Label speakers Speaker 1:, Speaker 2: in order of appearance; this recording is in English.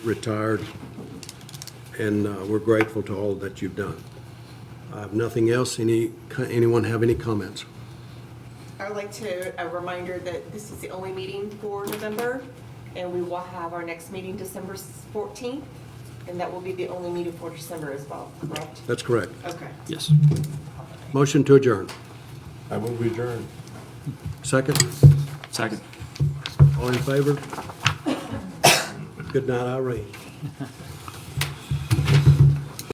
Speaker 1: retired, and uh, we're grateful to all that you've done. I have nothing else. Any, anyone have any comments?
Speaker 2: I would like to, a reminder that this is the only meeting for November, and we will have our next meeting December 14th, and that will be the only meeting for December as well, correct?
Speaker 1: That's correct.
Speaker 2: Okay.
Speaker 3: Yes.
Speaker 1: Motion to adjourn.
Speaker 4: I will adjourn.
Speaker 1: Second,
Speaker 3: Second.
Speaker 1: all in favor? Good night, Irene.